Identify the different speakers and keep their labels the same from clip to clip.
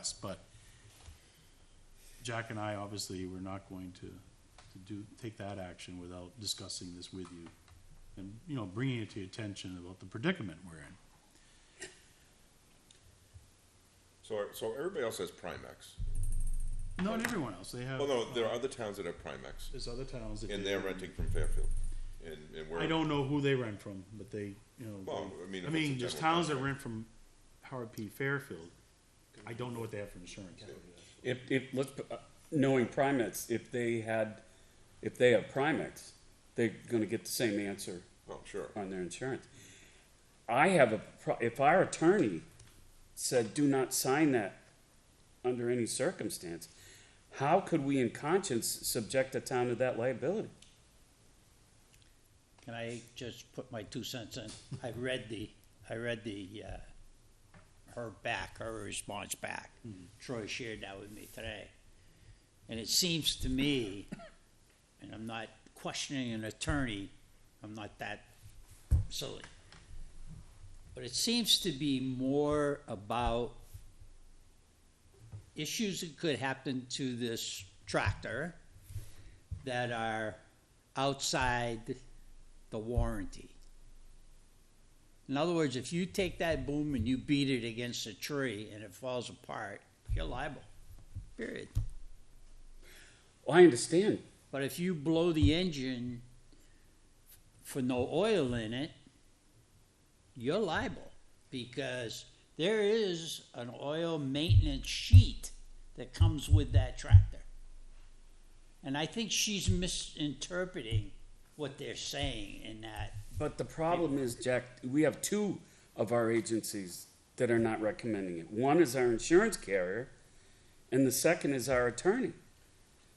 Speaker 1: discuss, but Jack and I obviously were not going to, to do, take that action without discussing this with you. And, you know, bringing it to your attention about the predicament we're in.
Speaker 2: So, so everybody else has Primex.
Speaker 1: Not everyone else, they have.
Speaker 2: Well, no, there are other towns that have Primex,
Speaker 1: There's other towns that.
Speaker 2: and
Speaker 1: do.
Speaker 2: they're renting from Fairfield, and, and we're.
Speaker 1: I don't know who they rent from, but they, you know.
Speaker 2: Well,
Speaker 1: they-
Speaker 2: I mean,
Speaker 1: I
Speaker 2: if
Speaker 1: mean,
Speaker 2: it's a
Speaker 1: there's
Speaker 2: general
Speaker 1: towns that
Speaker 2: contract.
Speaker 1: rent from Howard P. Fairfield. I don't know what they have for insurance.
Speaker 3: If, if, let's, put- uh, knowing Primex, if they had, if they have Primex, they're gonna get the same answer
Speaker 2: Oh, sure.
Speaker 3: on their insurance. I have a, pro- if our attorney said, do not sign that under any circumstance, how could we in conscience subject a town to that liability?
Speaker 4: Can I just put my two cents in? I read the, I read the, uh, her back, her response back. Troy shared that with me today. And it seems to me, and I'm not questioning an attorney, I'm not that silly. But it seems to be more about issues that could happen to this tractor that are outside the warranty. In other words, if you take that boom and you beat it against a tree and it falls apart, you're liable, period.
Speaker 3: Well, I understand,
Speaker 4: But if you blow the engine for no oil in it, you're liable because there is an oil maintenance sheet that comes with that tractor. And I think she's misinterpreting what they're saying in that
Speaker 3: But the problem is, Jack, we have two of our agencies that are not recommending it. One is our insurance carrier, and the second is our attorney.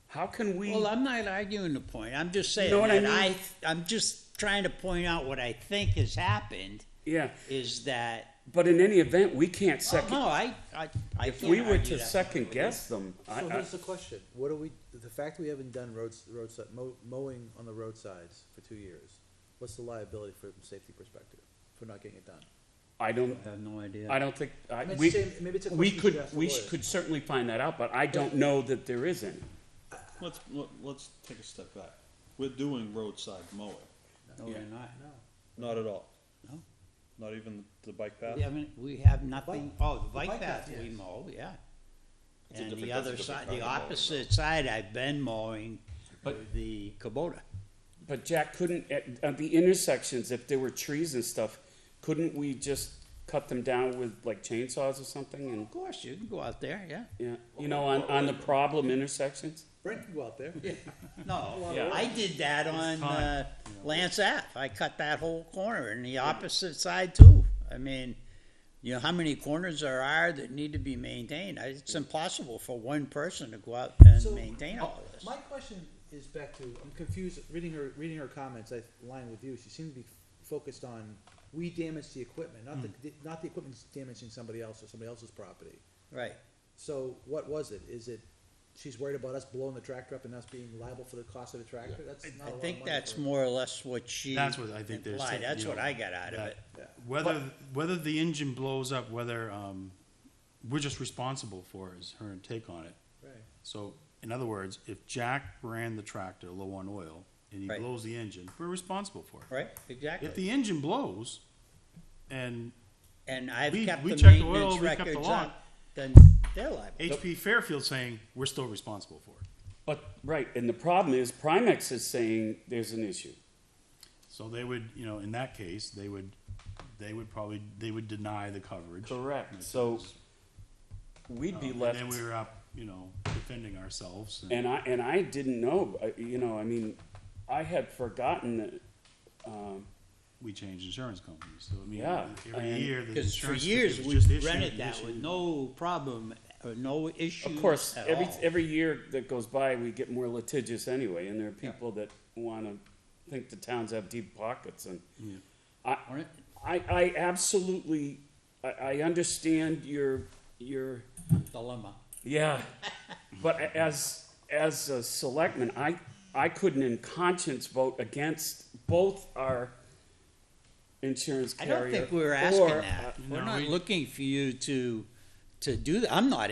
Speaker 3: How can we?
Speaker 4: Well, I'm not arguing the point. I'm just saying
Speaker 3: know what I
Speaker 4: that I,
Speaker 3: mean?
Speaker 4: I'm just trying to point out what I think has happened
Speaker 3: yeah,
Speaker 4: is that,
Speaker 3: but in any event, we can't
Speaker 4: oh,
Speaker 3: second.
Speaker 4: no, I, I, I
Speaker 3: if
Speaker 4: can't
Speaker 3: we were
Speaker 4: argue
Speaker 3: to
Speaker 4: that.
Speaker 3: second guess them, I,
Speaker 5: So
Speaker 3: I,
Speaker 5: here's the question, what do we, the fact we haven't done roads, roadside, mow- mowing on the roadsides for two years, what's the liability from a safety perspective, for not getting it done?
Speaker 3: I don't.
Speaker 4: I have no idea.
Speaker 3: I don't think I,
Speaker 5: Maybe it's
Speaker 3: we.
Speaker 5: the same- maybe it's a
Speaker 3: we
Speaker 5: question you should
Speaker 3: could.
Speaker 5: ask the
Speaker 3: We
Speaker 5: lawyers.
Speaker 3: could certainly find that out, but I don't know that there is any.
Speaker 6: Let's, let- let's take a step back. We're doing roadside mowing,
Speaker 4: No, we're not.
Speaker 6: not at all.
Speaker 4: No.
Speaker 6: Not even the bike path?
Speaker 4: We haven't, we have nothing, oh, the
Speaker 5: bike
Speaker 4: bike path
Speaker 5: path,
Speaker 4: we
Speaker 5: yes.
Speaker 4: mow, yeah.
Speaker 2: It's a different-
Speaker 4: And the
Speaker 2: that's a
Speaker 4: other
Speaker 2: different
Speaker 4: side,
Speaker 2: kind
Speaker 4: the
Speaker 2: of mowing, though.
Speaker 4: opposite side, I've been mowing with the Kubota.
Speaker 3: But Jack, couldn't, at, at the intersections, if there were trees and stuff, couldn't we just cut them down with like chainsaws or something and,
Speaker 4: Of course, you can go out there, yeah.
Speaker 3: yeah, you know, on, on the problem intersections?
Speaker 5: Brent can go out there.
Speaker 4: No, I did that on uh, Lance Ave. I cut that whole corner and the opposite side too. I mean, you know, how many corners there are that need to be maintained? I- It's impossible for one person to go out and
Speaker 5: So,
Speaker 4: maintain all
Speaker 5: uh,
Speaker 4: this.
Speaker 5: My question is back to, I'm confused, reading her, reading her comments, I line with you, she seemed to be focused on, we damaged the equipment, not the, not the equipment's damaging somebody else or somebody else's property.
Speaker 4: Right.
Speaker 5: So what was it? Is it, she's worried about us blowing the tractor up and us being liable for the cost of the tractor? That's not a
Speaker 4: I
Speaker 5: lot of
Speaker 4: think
Speaker 5: money
Speaker 4: that's
Speaker 5: for-
Speaker 4: more or less what she
Speaker 1: That's what I think there's.
Speaker 4: implied.
Speaker 1: some-
Speaker 4: That's
Speaker 1: you
Speaker 4: what
Speaker 1: know,
Speaker 4: I got out of
Speaker 1: that
Speaker 4: it.
Speaker 1: Whether, whether the engine blows up, whether, um, we're just responsible for is her take on it.
Speaker 5: Right.
Speaker 1: So, in other words, if Jack ran the tractor low on oil and he
Speaker 4: Right.
Speaker 1: blows the engine, we're responsible for it.
Speaker 4: Right,
Speaker 1: If
Speaker 4: exactly.
Speaker 1: the engine blows and
Speaker 4: And I've
Speaker 1: we-
Speaker 4: kept
Speaker 1: we
Speaker 4: the
Speaker 1: checked the oil,
Speaker 4: maintenance
Speaker 1: we kept the
Speaker 4: records on,
Speaker 1: lot.
Speaker 4: then they're liable.
Speaker 1: HP Fairfield saying, we're still responsible for it.
Speaker 3: But, right, and the problem is Primex is saying there's an issue.
Speaker 1: So they would, you know, in that case, they would, they would probably, they would deny the coverage. Um,
Speaker 3: Correct. So we'd be
Speaker 1: And
Speaker 3: left,
Speaker 1: then we were up, you know, defending ourselves. and-
Speaker 3: and I, and I didn't know, uh, you know, I mean, I had forgotten that, um,
Speaker 1: we changed insurance companies. So I mean,
Speaker 3: Yeah,
Speaker 1: every
Speaker 3: and-
Speaker 1: year the
Speaker 4: Because
Speaker 1: insurance
Speaker 4: for
Speaker 1: company
Speaker 4: years,
Speaker 1: was
Speaker 4: we
Speaker 1: just issuing-
Speaker 4: rented that with
Speaker 1: issuing-
Speaker 4: no problem, or no issue
Speaker 3: Of course,
Speaker 4: at
Speaker 3: every,
Speaker 4: all.
Speaker 3: every year that goes by, we get more litigious anyway, and there are people that wanna think the towns have deep pockets and. I,
Speaker 4: Alright.
Speaker 3: I, I absolutely, I, I understand your, your,
Speaker 4: Dilemma.
Speaker 3: yeah, but a- as, as a selectman, I, I couldn't in conscience vote against both our insurance
Speaker 4: I
Speaker 3: carrier.
Speaker 4: don't think we're asking
Speaker 3: or, uh,
Speaker 4: that. We're
Speaker 1: No,
Speaker 4: not
Speaker 1: we-
Speaker 4: looking for you to, to do that. I'm not